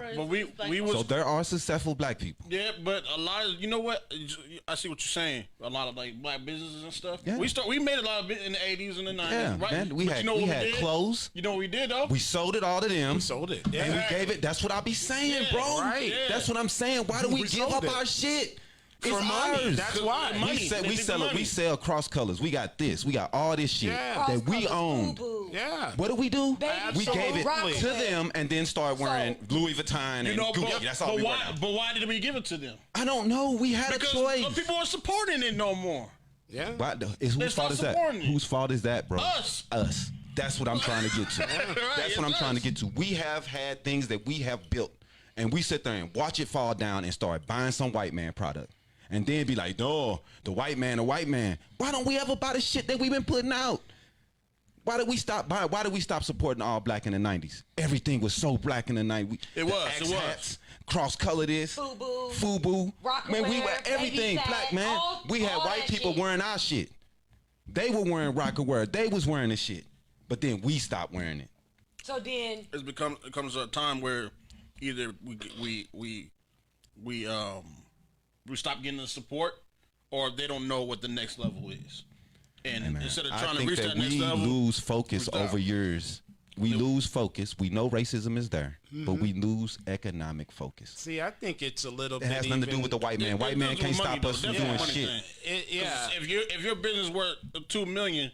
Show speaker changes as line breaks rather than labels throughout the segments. as
But we-
these black
we
folks.
was-
So there are successful black people.
Yeah, but a lot of you know what I see what you're saying. A lot of like black businesses and stuff.
Yeah.
We start we made a lot of it in the 80s and the 90s.
Yeah,
right?
man. We
But
had we had
did?
clothes.
You know what we did though?
We sold it all to them.
Sold it.
And we
Yeah.
gave it. That's what I be saying,
Yeah,
bro.
right.
Yeah.
That's what I'm saying. Why do we,
We
give
sold
up
it.
our shit? It's
For money.
ours.
That's why.
we,
Money.
sell,
They
we
think
sell it.
money.
We sell cross colors. We got this. We got all this shit
Yeah.
that we own.
Cross-colored boo-boo.
Yeah.
What do we do?
Baby
we gave it
Absolutely.
to them and then start wearing Louis Vuitton and
you know,
Gucci.
but,
That's all
but
we wear
why
now.
but why did we give it to them?
I don't know. We had
Because
a choice.
uh, people aren't supporting it no more.
Yeah.
Why the- it's
They
whose fault
start
is that?
supporting it.
Whose fault is that, bro?
Us.
Us. That's what I'm trying to get to. That's
it's
what I'm trying to
us.
get to. We have had things that we have built, and we sit there and watch it fall down and start buying some white man product. And then be like, no, the white man, the white man. Why don't we ever buy the shit that we've been putting out? Why did we stop buying? Why did we stop supporting all black in the 90s? Everything was so black in the 90s.
It was, it was.
Cross color this.
Fubu.
Fubu.
Rock
Man, we
wear,
were everything
baby fat,
black, man.
all-
we had
all
white
that
people
shit.
wearing our shit. They were wearing rock and wear. They was wearing the shit. But then we stopped wearing it.
So then,
It's become it comes a time where either we we we we um we stop getting the support or they don't know what the next level is. And
Man,
instead of
I
trying to
think
reach
that,
that, next
we
level,
lose focus
we stop.
over years. We lose focus. We know racism is there, but we
Mm-hmm.
lose economic focus.
See, I think it's a little
It
bit.
has nothing to do
even-
with the white man.
It-
White
it
man
does
can't
with money,
stop
though.
us from
That's the
doing
funny
shit.
thing.
It, yeah.
If your if your business worth two million,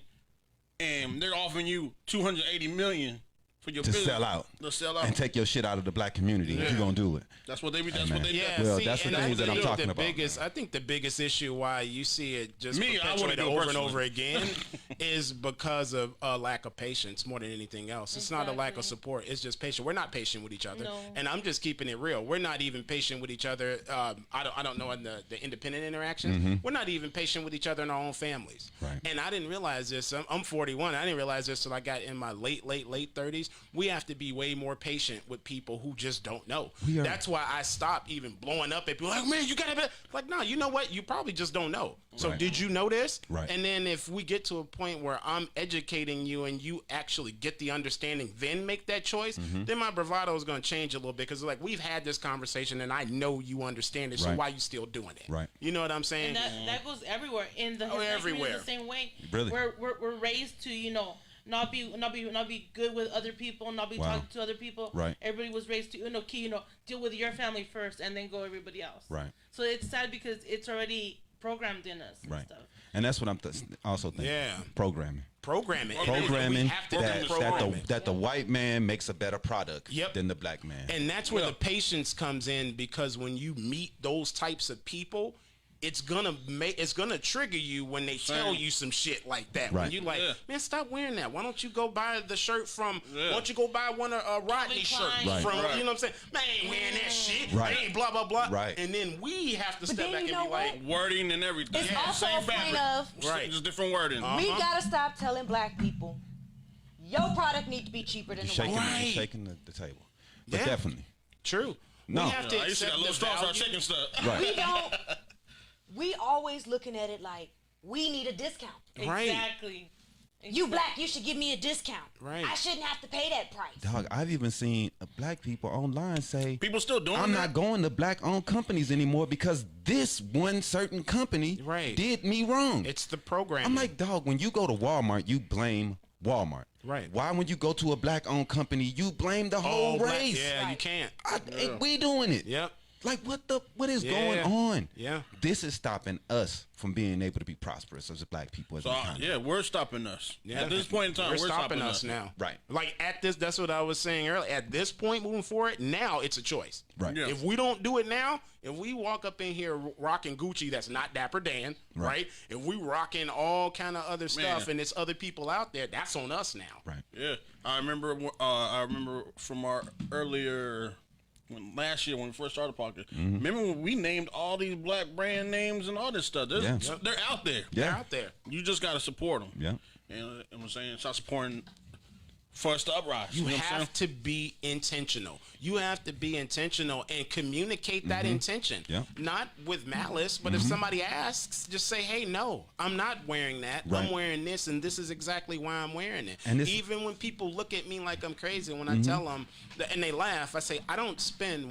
and they're offering you two hundred eighty million for your
To
business,
sell out.
to sell out,
And take your shit out of the black community if you're gonna do it.
that's what they be. That's
Amen.
what they.
Yeah,
Well,
see,
that's the
and I
things that
think
I'm talking
the
about,
Biggest, I think the biggest issue why you see it just
Me, I wouldn't
perpetuated
do it
over and
personally.
over again is because of a lack of patience more than anything else. It's not a lack of support; it's just patient. We're not patient with each other,
No.
and I'm just keeping it real. We're not even patient with each other. Um, I don't, I don't know in the, the independent interactions. We're not even patient with each other in our own families.
Mm-hmm. Right.
And I didn't realize this. I'm, I'm 41. I didn't realize this till I got in my late, late, late 30s. We have to be way more patient with people who just don't know.
We are-
That's why I stopped even blowing up at people like, man, you gotta be like, no, you know what? You probably just don't know. So
Right.
did you know this?
Right.
And then if we get to a point where I'm educating you and you actually get the understanding, then make that choice,
Mm-hmm.
then my bravado is gonna change a little bit because like we've had this conversation and I know you understand it. So
Right.
why you still doing it?
Right.
You know what I'm saying?
and that, that goes everywhere in the Hispanic
Mm-hmm. Oh, everywhere.
community the same way.
Really?
We're, we're we're raised to you know not be not be not be good with other people, not be
Wow.
talking to other people.
Right.
Everybody was raised to you know key, you know deal with your family first and then go everybody else.
Right.
So it's sad because it's already programmed in us. And
Right.
Stuff.
And that's what I'm th- also thinking.
Yeah.
Programming.
Programming. And
Programming
we have to
that,
do
that
programming.
the that the white man makes a better product
Yep.
than the black man.
And that's where the patience comes in because when you meet those types of people, it's gonna make it's gonna trigger you when they tell you some shit like that.
Right.
When you like,
Yeah.
man, stop wearing that. Why don't you go buy the shirt from?
Yeah.
Why don't you go buy one of uh, Rodney's
Klein.
shirts
Right.
from?
Right.
You know what I'm saying? Man, I ain't wearing that shit.
Right.
Man, blah blah blah.
Right.
And then we have to step
then
back
you
and
know
be like,
what?
Wording and everything.
It's also a point of- Uh-huh.
Just-
Right.
Just different wording. Uh,
We
Uh-huh.
gotta stop telling black people your product need to be cheaper than
You're
the
shaking,
white.
you're
Right.
shaking the, the table. But
Yeah.
definitely.
true.
No.
We have to
I used to
accept
got
the
little straws start
value.
shaking stuff.
We
Right.
don't. We always looking at it like we need a discount.
Right.
Exactly.
You black, you should give me a discount.
Right.
I shouldn't have to pay that price.
Dog, I've even seen uh, black people online say,
People still doing
I'm
that?
not going to black owned companies anymore because this one certain company
Right.
did me wrong.
It's the program.
I'm like, dog, when you go to Walmart, you blame Walmart.
Right.
Why when you go to a black owned company, you blame the whole
oh, right.
race?
Yeah, you
Right.
can't.
I, it- we doing it.
Yep.
Like what the what is
Yeah.
going on?
Yeah.
This is stopping us from being able to be prosperous as a black people. As
So,
an
uh,
economy.
yeah, we're stopping us.
Yeah.
At this point in time,
You're
we're,
stopping, us now.
Right.
Like at this, that's what I was saying earlier. At this point, moving forward, now it's a choice.
Right.
Yeah.
If we don't do it now, if we walk up in here rocking Gucci, that's not Dapper Dan, right? If we rocking all kind of other stuff
Man.
and it's other people out there, that's on us now.
Right.
Yeah, I remember. Uh, I remember from our earlier when last year when we first started Parker.
Mm-hmm.
Remember when we named all these black brand names and all this stuff? There's,
Yeah.
They're out there.
They're
Yeah.
out there.
You just gotta support them.
Yeah.
And uh, I'm saying start supporting for us to uprise.
You
know what I'm saying?
have to be intentional. You have to be intentional and communicate that intention.
Yeah.
Not with malice, but if somebody asks, just say, "Hey, no, I'm not wearing that.
Right.
I'm wearing this, and this is exactly why I'm wearing it."
And this-
even when people look at me like I'm crazy, when I tell them and they laugh, I say, "I don't spend